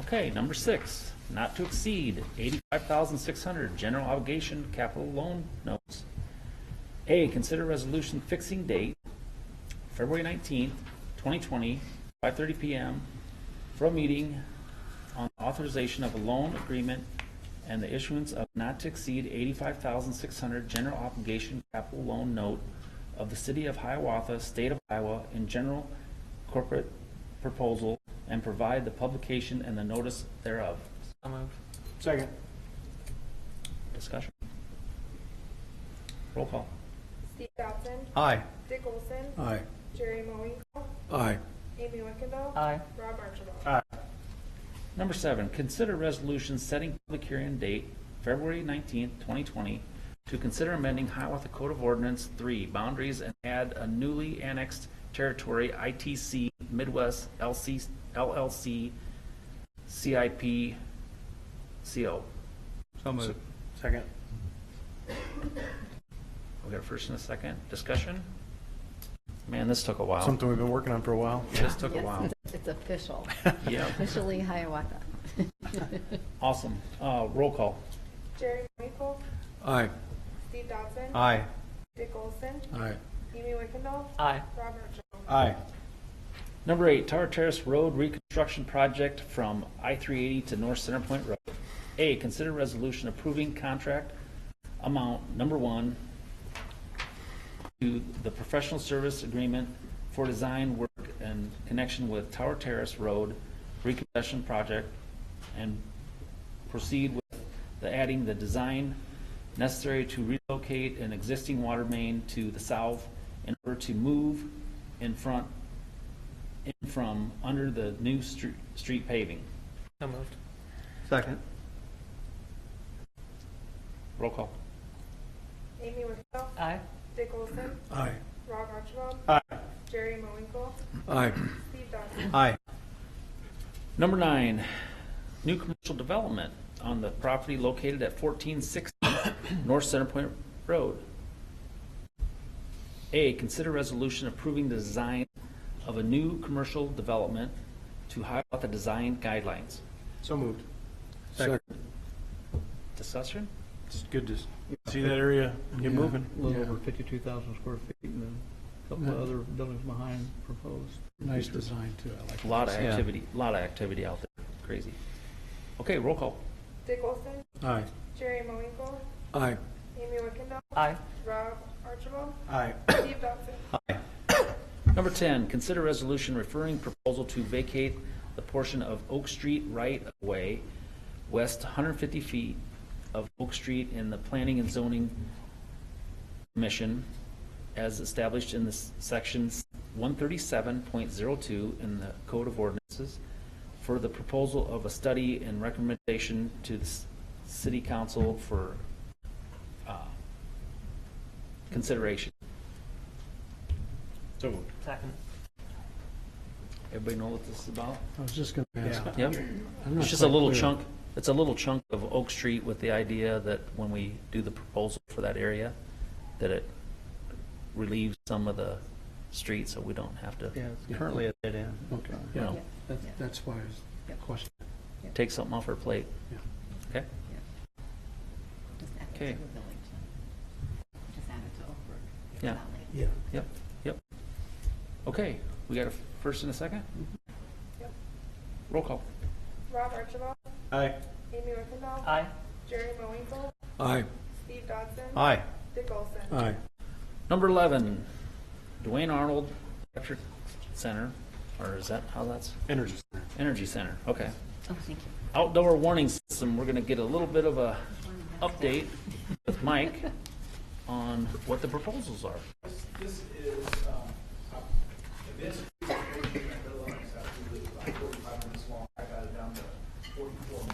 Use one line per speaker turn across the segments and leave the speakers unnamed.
Okay, number six, not to exceed eighty-five thousand six hundred, general obligation capital loan notes. A, consider resolution fixing date, February nineteenth, twenty twenty, five thirty PM, for a meeting on authorization of a loan agreement and the issuance of not to exceed eighty-five thousand six hundred general obligation capital loan note of the city of Hiawatha, state of Iowa, in general corporate proposal, and provide the publication and the notice thereof.
So moved.
Second.
Discussion. Roll call.
Steve Dodson.
Aye.
Dick Olson.
Aye.
Jerry Moinkle.
Aye.
Amy Wickendall.
Aye.
Rob Archibald.
Number seven, consider resolution setting public hearing date, February nineteenth, twenty twenty, to consider amending Hiawatha Code of Ordinance three, boundaries, and add a newly annexed territory, ITC Midwest LC, LLC, CIP, CO.
So moved. Second.
We got a first and a second, discussion? Man, this took a while.
Something we've been working on for a while.
This took a
Yes,
while.
it's- It's official,
Yeah,
officially Hiawatha.
awesome. Uh, roll call.
Jerry Moinkle.
Aye.
Steve Dodson.
Aye.
Dick Olson.
Aye.
Amy Wickendall.
Aye.
Rob Archibald.
Aye.
Number eight, Tower Terrace Road Reconstruction Project from I-380 to North Center Point Road. A, consider resolution approving contract amount number one to the professional service agreement for design work in connection with Tower Terrace Road Reconstruction Project and proceed with the adding the design necessary to relocate an existing water main to the south in order to move in front in from under the new stre- street paving.
So moved.
Second.
Roll call.
Amy Wickendall.
Aye.
Dick Olson.
Aye.
Rob Archibald.
Aye.
Jerry Moinkle.
Aye.
Steve Dodson.
Aye.
Number nine, new commercial development on the property located at fourteen sixty North Center Point Road. A, consider resolution approving the design of a new commercial development to highlight the design guidelines.
So moved. Second.
Discussion?
It's good to s- see that area get moving.
A little over fifty-two thousand square feet and then a couple of other buildings behind proposed.
Nice design too, I like
A
it.
Lot of activity, lot of activity out there, crazy. Okay, roll call.
Dick Olson.
Aye.
Jerry Moinkle.
Aye.
Amy Wickendall.
Aye.
Rob Archibald.
Aye.
Steve Dodson.
Number 10, consider resolution referring proposal to vacate the portion of Oak Street right-of-way west 150 feet of Oak Street in the Planning and Zoning Commission as established in the s- section 137.02 in the Code of Ordinances for the proposal of a study and recommendation to the s- city council for uh, consideration.
So moved.
Second.
Everybody know what this is about?
I was just gonna ask.
Yeah.
Yep.
I'm not
It's just a
quite
little
clear.
chunk, it's a little chunk of Oak Street with the idea that when we do the proposal for that area, that it relieves some of the street, so we don't have to,
Yeah, it's currently at that end.
Okay,
you know,
Yeah.
that's, that's why I was
Yeah.
questioning.
take something off our plate.
Yeah.
Okay?
Just add it to
Okay.
the village then. Just add it to Oak Brook. It's
Yeah.
not like-
Yeah.
Yep, yep. Okay, we got a first and a second?
Mm-hmm.
Yep.
Roll call.
Rob Archibald.
Aye.
Amy Wickendall.
Aye.
Jerry Moinkle.
Aye.
Steve Dodson.
Aye.
Dick Olson.
Aye,
Number 11, Dwayne Arnold Electric Center, or is that how that's?
Energy.
Energy Center, okay.
Oh, thank you.
Outdoor warning system, we're gonna get a little bit of a update with Mike on what the proposals are.
This is, um, this presentation, I realize after the like, 45 minutes long, I got it down to 44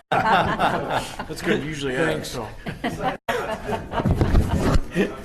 minutes.
That's good. Usually I think so.
So I- I- I-